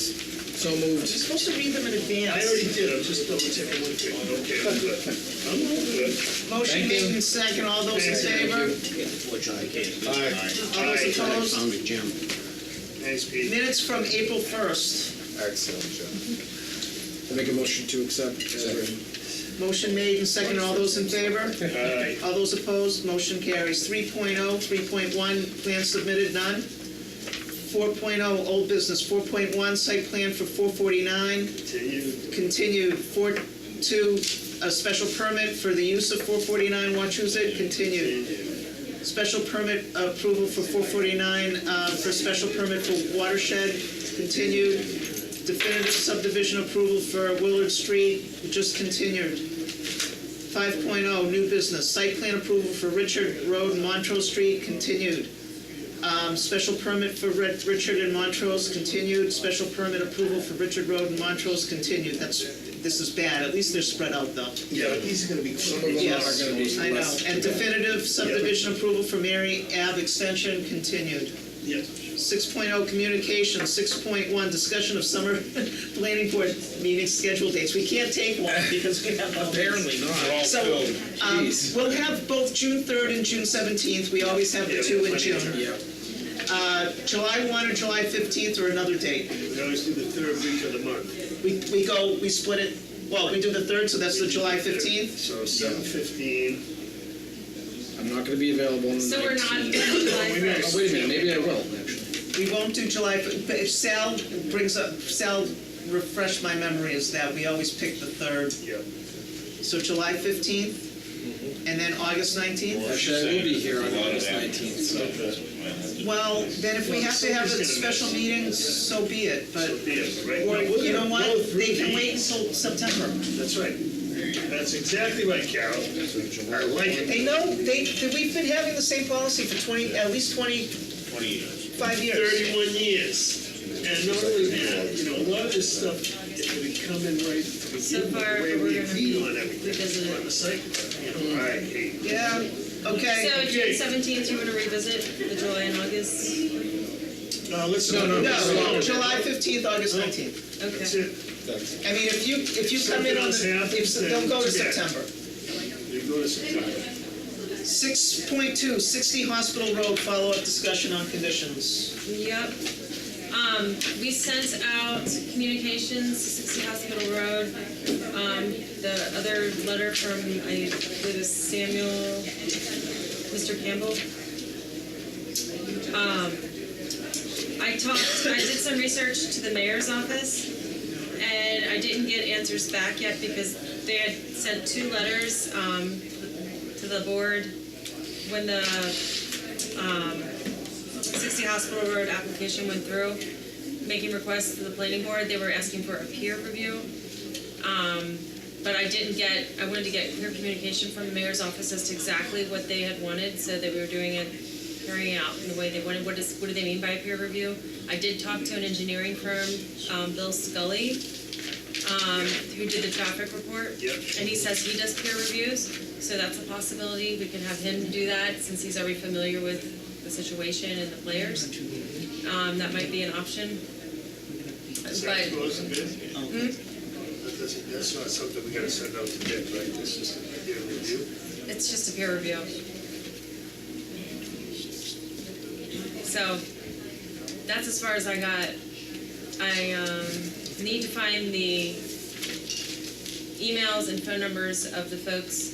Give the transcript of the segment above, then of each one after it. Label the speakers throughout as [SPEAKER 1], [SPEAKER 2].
[SPEAKER 1] So moved.
[SPEAKER 2] You're supposed to read them in
[SPEAKER 3] I
[SPEAKER 2] advance.
[SPEAKER 3] already did, I'm just double checking one thing. Okay, I'm good. I'm all good.
[SPEAKER 2] Motion
[SPEAKER 1] Thank you.
[SPEAKER 2] made in second, all those in
[SPEAKER 3] Thank
[SPEAKER 2] favor?
[SPEAKER 4] Which I can't.
[SPEAKER 1] All right.
[SPEAKER 2] All those
[SPEAKER 3] Aye.
[SPEAKER 2] opposed?
[SPEAKER 4] Found a gem.
[SPEAKER 3] Thanks, Pete.
[SPEAKER 2] Minutes from April 1st.
[SPEAKER 5] Excellent, John.
[SPEAKER 1] I make a motion to accept as written.
[SPEAKER 2] Motion made in second, all those in favor?
[SPEAKER 3] Aye.
[SPEAKER 2] All those opposed, motion carries. oh, 3.0, 3.1, plan submitted, none. 4.0, old business. 4.1, site plan for 449,
[SPEAKER 3] Continue.
[SPEAKER 2] continued. 4.2, a special permit for the use of 449 Wachusett, continued. Special permit approval for 449, uh, for special permit for watershed, continued. Definitive subdivision approval for Willard Street, just continued. 5.0, oh, new business, site plan approval for Richard Road and Montrose Street, continued. Um, Special permit for Red- Richard and Montrose, continued. Special permit approval for Richard Road and Montrose, continued. That's, this is bad, at least they're spread out though.
[SPEAKER 3] Yeah, but these are gonna be.
[SPEAKER 1] Some of them are gonna be
[SPEAKER 2] Yes, I know.
[SPEAKER 1] less.
[SPEAKER 2] And definitive subdivision approval for Mary Ave extension, continued.
[SPEAKER 3] Yes.
[SPEAKER 2] 6.0 communication, 6.1 discussion of summer planning board meeting schedule dates. We can't take one because we have. all these.
[SPEAKER 1] Apparently not.
[SPEAKER 2] So, um, we'll have both June 3rd and June 17th, we always have the
[SPEAKER 3] Yeah,
[SPEAKER 2] two in
[SPEAKER 3] plenty of
[SPEAKER 6] Um,
[SPEAKER 2] June.
[SPEAKER 3] time.
[SPEAKER 1] Yeah.
[SPEAKER 2] July 1 or July 15th or another date.
[SPEAKER 3] We always do the third week of the month.
[SPEAKER 2] We, we go, we split it, well, we do the 3rd, so that's the July 15th.
[SPEAKER 3] So seven fifteen.
[SPEAKER 1] I'm not gonna be available on the
[SPEAKER 6] So we're not on
[SPEAKER 1] 19th.
[SPEAKER 6] July
[SPEAKER 1] Oh,
[SPEAKER 6] first.
[SPEAKER 1] wait a minute, maybe I will, actually.
[SPEAKER 2] We won't do July, fif- but if Sal brings up, Sal refresh my memory is that we always pick the 3rd.
[SPEAKER 3] Yeah.
[SPEAKER 2] So July 15th and then August 19th?
[SPEAKER 1] Actually, I will be here on August 19th, so.
[SPEAKER 2] Well, then if we have to have a special meeting, so be it, but,
[SPEAKER 3] So, yeah, right.
[SPEAKER 2] or,
[SPEAKER 3] No, we're
[SPEAKER 2] you know
[SPEAKER 3] gonna
[SPEAKER 2] what?
[SPEAKER 3] go through
[SPEAKER 2] They can
[SPEAKER 3] the-
[SPEAKER 2] wait until September.
[SPEAKER 3] That's right. That's exactly right, Carol. I like it.
[SPEAKER 2] They know, they, that we've been having the same policy for 20, at least 25 years.
[SPEAKER 3] Thirty-one years. And not only that, you know, a lot of this stuff, if we come in right, if we
[SPEAKER 6] So
[SPEAKER 3] give
[SPEAKER 6] far,
[SPEAKER 3] the way
[SPEAKER 6] we're
[SPEAKER 3] we
[SPEAKER 6] gonna
[SPEAKER 3] agreed on everything,
[SPEAKER 6] revisit
[SPEAKER 3] on
[SPEAKER 6] it.
[SPEAKER 3] the site, plan, you know, I hate.
[SPEAKER 2] Yeah, okay.
[SPEAKER 6] So June seventeenth, you want to revisit the July and August?
[SPEAKER 3] No, let's.
[SPEAKER 1] No, no,
[SPEAKER 2] No, July 15th, August 19th.
[SPEAKER 3] That's
[SPEAKER 6] Okay.
[SPEAKER 3] it.
[SPEAKER 2] I mean, if you, if you come in on the, if, they'll go to September.
[SPEAKER 3] We go to September.
[SPEAKER 2] 6.2, 60 Hospital Road, follow-up discussion on conditions.
[SPEAKER 6] Yep. Um, we sent out communications to sixty Hospital Road. Um, the other letter from, I believe it's Samuel, Mr. Campbell. Um, I talked, I did some research to the mayor's office and I didn't get answers back yet because they had sent two letters, um, to the board when the 60 Hospital Road application went through, making requests to the planning board, they were asking for a peer review. Um, But I didn't get, I wanted to get clear communication from the mayor's office as to exactly what they had wanted, so that we were doing it, carrying out in the way they wanted, what is, what do they mean by a peer review? I did talk to an engineering firm, um, Bill Scully, um, who did the traffic report.
[SPEAKER 3] Yep.
[SPEAKER 6] And he says he does peer reviews, so that's a possibility, we can have him do that, since he's already familiar with the situation and the players. Um, that might be an option.
[SPEAKER 3] Is that
[SPEAKER 6] But,
[SPEAKER 3] close a bit?
[SPEAKER 6] Hmm?
[SPEAKER 3] That doesn't, that's not something we gotta send out to bid, right? That's just an idea review.
[SPEAKER 6] It's just a peer review. So, that's as far as I got. I um, need to find the emails and phone numbers of the folks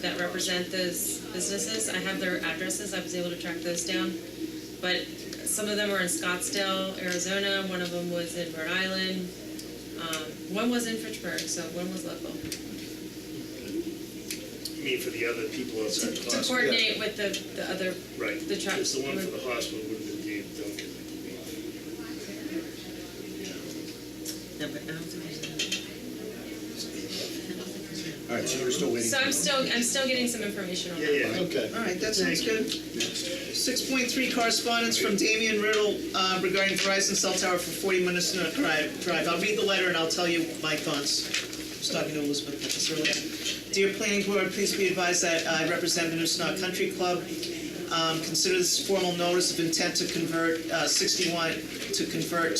[SPEAKER 6] that represent those businesses. I have their addresses, I was able to track those down. But some of them were in Scottsdale, Arizona, one of them was in Rhode Island. Um, One was in Fitchburg, so one was local.
[SPEAKER 3] You mean for the other people outside the
[SPEAKER 6] To
[SPEAKER 3] hospital?
[SPEAKER 6] coordinate with the, the other,
[SPEAKER 3] Right.
[SPEAKER 6] the truck.
[SPEAKER 3] Because the one for the hospital would have been Dave Duncan, I believe.
[SPEAKER 5] All right, so you're still waiting.
[SPEAKER 6] So I'm still, I'm still getting some information on that.
[SPEAKER 3] Yeah, yeah.
[SPEAKER 5] Okay.
[SPEAKER 2] All right, that sounds good. 6.3 correspondence from Damian Riddle uh, regarding Verizon cell tower for 40 minutes Minnesota Drive. Drive. I'll read the letter and I'll tell you my thoughts. I was talking to Elizabeth about this earlier. Dear Planning Board, please be advised that I represent Minnesota Country Club. Um, Consider this formal notice of intent to convert uh, 61, to convert